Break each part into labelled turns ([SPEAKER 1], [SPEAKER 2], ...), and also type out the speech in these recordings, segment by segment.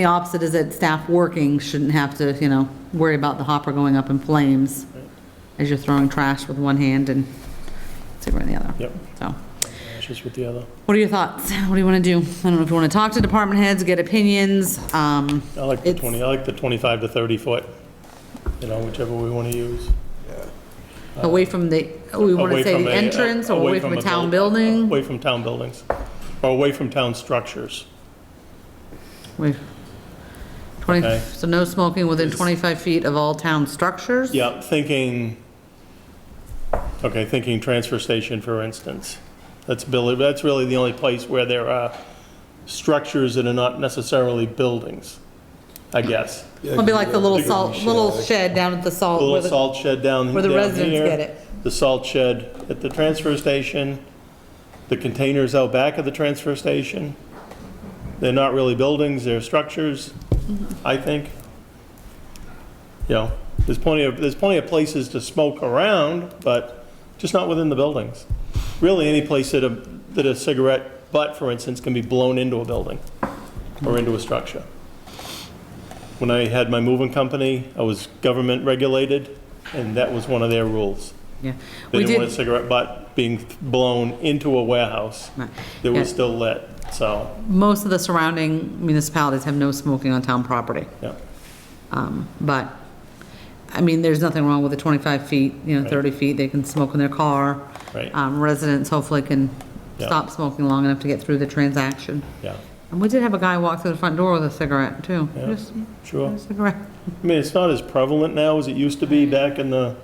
[SPEAKER 1] The opposite is that staff working shouldn't have to, you know, worry about the hopper going up in flames as you're throwing trash with one hand and super in the other.
[SPEAKER 2] Yep.
[SPEAKER 1] So,
[SPEAKER 2] Just with the other.
[SPEAKER 1] what are your thoughts? What do you want to do? I don't know if you want to talk to department heads, get opinions, um,
[SPEAKER 2] I like the
[SPEAKER 1] It's-
[SPEAKER 2] 20, I like the 25 to 30 foot, you know, whichever we want to use.
[SPEAKER 1] away from the, we want to
[SPEAKER 2] Away
[SPEAKER 1] say
[SPEAKER 2] from uh,
[SPEAKER 1] the
[SPEAKER 2] a-
[SPEAKER 1] entrance or away from a town building?
[SPEAKER 2] Away from town buildings, or away from town structures.
[SPEAKER 1] Wait. 20,
[SPEAKER 2] Okay.
[SPEAKER 1] so no smoking within 25 feet of all town structures?
[SPEAKER 2] Yeah, thinking, okay, thinking transfer station, for instance. That's Billy, that's really the only place where there are structures that are not necessarily buildings, I guess.
[SPEAKER 1] It'll be like the little salt, little shed down at the
[SPEAKER 2] The
[SPEAKER 1] salt. where
[SPEAKER 2] little
[SPEAKER 1] the-
[SPEAKER 2] salt shed down
[SPEAKER 1] where the
[SPEAKER 2] down
[SPEAKER 1] residents
[SPEAKER 2] here,
[SPEAKER 1] get it.
[SPEAKER 2] The salt shed at the transfer station, the containers out back of the transfer station. They're not really buildings, they're structures, I think. You know, there's plenty of, there's plenty of places to smoke around, but just not within the buildings. Really, any place that a, that a cigarette butt, for instance, can be blown into a building or into a structure. When I had my moving company, I was government regulated, and that was one of their rules.
[SPEAKER 1] Yeah.
[SPEAKER 2] They
[SPEAKER 1] We
[SPEAKER 2] didn't want a
[SPEAKER 1] did,
[SPEAKER 2] cigarette butt being blown into a warehouse
[SPEAKER 1] Right.
[SPEAKER 2] that was
[SPEAKER 1] Yeah.
[SPEAKER 2] still lit, so,
[SPEAKER 1] most of the surrounding municipalities have no smoking on town property.
[SPEAKER 2] yeah.
[SPEAKER 1] Um, But, I mean, there's nothing wrong with the 25 feet, you know, 30 feet, they can smoke in their car.
[SPEAKER 2] Right.
[SPEAKER 1] Um, Residents hopefully can
[SPEAKER 2] Yeah.
[SPEAKER 1] stop smoking long enough to get through the transaction.
[SPEAKER 2] Yeah,
[SPEAKER 1] And we did have a guy walk through the front door with a cigarette, too.
[SPEAKER 2] Yeah.
[SPEAKER 1] Just
[SPEAKER 2] sure.
[SPEAKER 1] a cigarette.
[SPEAKER 2] I mean, it's not as prevalent now as it used to be back in the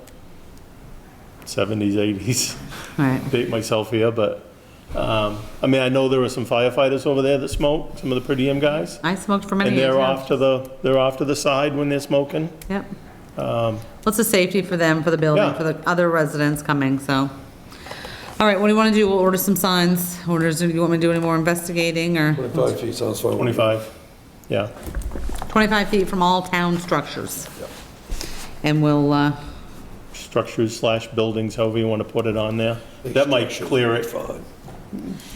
[SPEAKER 2] 70s, 80s.
[SPEAKER 1] Right,
[SPEAKER 2] date myself here, but, um, I mean, I know there were some firefighters over there that smoked, some of the per diem guys.
[SPEAKER 1] I smoked for many
[SPEAKER 2] And
[SPEAKER 1] years.
[SPEAKER 2] they're
[SPEAKER 1] yeah.
[SPEAKER 2] off to the, they're off to the side when they're smoking.
[SPEAKER 1] Yep. What's the safety for them, for the building,
[SPEAKER 2] Um, Yeah.
[SPEAKER 1] for the other residents coming, so. All right, what do you want to do? We'll order some signs. Orders, do you want me to do any more investigating or
[SPEAKER 3] 25 feet sounds fine.
[SPEAKER 2] 25, yeah.
[SPEAKER 1] 25 feet from all town structures? And we'll, uh,
[SPEAKER 2] Structures slash buildings, however you want to put it on there. That might clear it
[SPEAKER 3] Fine.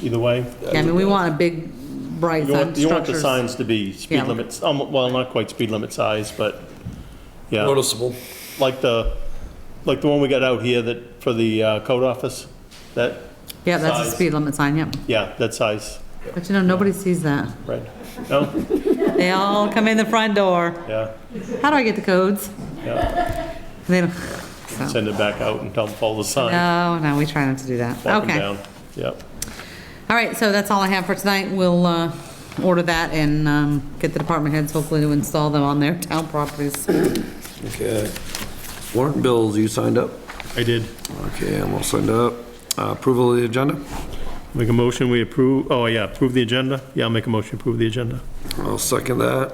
[SPEAKER 2] either way.
[SPEAKER 1] yeah, I mean, we want a big, bright
[SPEAKER 2] Uh, You
[SPEAKER 1] sign,
[SPEAKER 2] want, you want the
[SPEAKER 1] structures.
[SPEAKER 2] signs to be
[SPEAKER 1] Yeah.
[SPEAKER 2] speed limits, um, well, not quite speed limit size, but, yeah.
[SPEAKER 3] Noticeable.
[SPEAKER 2] Like the, like the one we got out here that, for the uh, code office, that,
[SPEAKER 1] Yeah, that's a
[SPEAKER 2] size.
[SPEAKER 1] speed limit sign, yep.
[SPEAKER 2] yeah, that size,
[SPEAKER 1] But you know, nobody sees that.
[SPEAKER 2] right? No?
[SPEAKER 1] They all come in the front door.
[SPEAKER 2] Yeah,
[SPEAKER 1] How do I get the codes?
[SPEAKER 2] yeah.
[SPEAKER 1] They don't, so,
[SPEAKER 2] Send it back out and tell them follow the sign.
[SPEAKER 1] no, no, we try not to do that.
[SPEAKER 2] Walk 'em
[SPEAKER 1] Okay.
[SPEAKER 2] down. Yep.
[SPEAKER 1] All right, so that's all I have for tonight. We'll uh, order that and um, get the department heads hopefully to install them on their town properties.
[SPEAKER 3] Okay. Warrant bills, you signed up?
[SPEAKER 2] I did.
[SPEAKER 3] Okay, I'm all signed up. Uh, Approval of the agenda?
[SPEAKER 2] Make a motion, we approve, oh, yeah, approve the agenda? Yeah, I'll make a motion, approve the agenda.
[SPEAKER 3] I'll second that.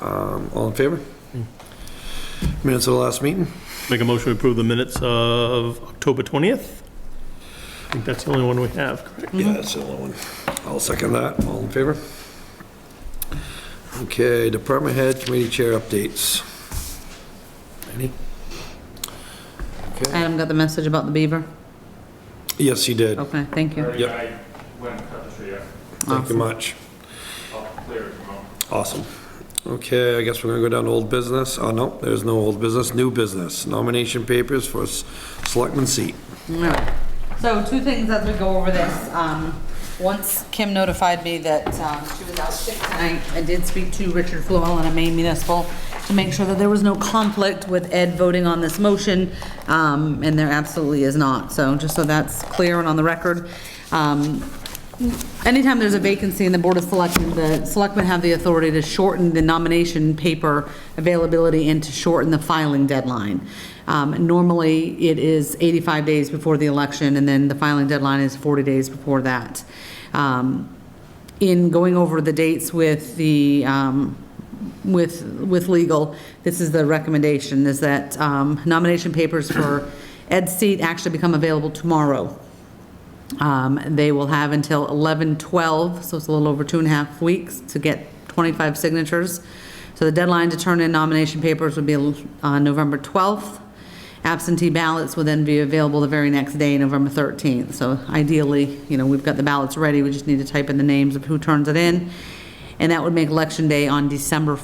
[SPEAKER 3] Um, All in favor? Minutes of the last meeting?
[SPEAKER 1] Mm-hmm.
[SPEAKER 2] Make a motion, we approve the minutes of October 20th? I think that's the only one we have, correct?
[SPEAKER 3] Yeah, that's the only one. I'll second that. All in favor? Okay, department head, committee chair updates. Any? Okay.
[SPEAKER 1] Adam got the message about the beaver?
[SPEAKER 3] Yes, he did.
[SPEAKER 1] Okay, thank you.
[SPEAKER 3] Yep.
[SPEAKER 4] I went and cut the tree up.
[SPEAKER 3] Thank you much.
[SPEAKER 4] I'll clear it tomorrow.
[SPEAKER 3] Awesome. Okay, I guess we're gonna go down to old business. Oh, no, there's no old business, new business. Nomination papers for s- selectman seat.
[SPEAKER 1] All right. So two things as we go over this. Um, Once Kim notified me that um, she was out sick tonight, I did speak to Richard Flewell in Maine Municipal to make sure that there was no conflict with Ed voting on this motion, um, and there absolutely is not. So just so that's clear and on the record. Um, Anytime there's a vacancy in the Board of Selectmen, the selectmen have the authority to shorten the nomination paper availability and to shorten the filing deadline. Um, Normally, it is 85 days before the election, and then the filing deadline is 40 days before that. Um, In going over the dates with the, um, with, with legal, this is the recommendation, is that um, nomination papers for Ed's seat actually become available tomorrow. Um, They will have until 11/12, so it's a little over two and a half weeks, to get 25 signatures. So the deadline to turn in nomination papers would be uh, November 12th. Absentee ballots will then be available the very next day, November 13th. So ideally, you know, we've got the ballots ready, we just need to type in the names of who turns it in. and that would make election day on December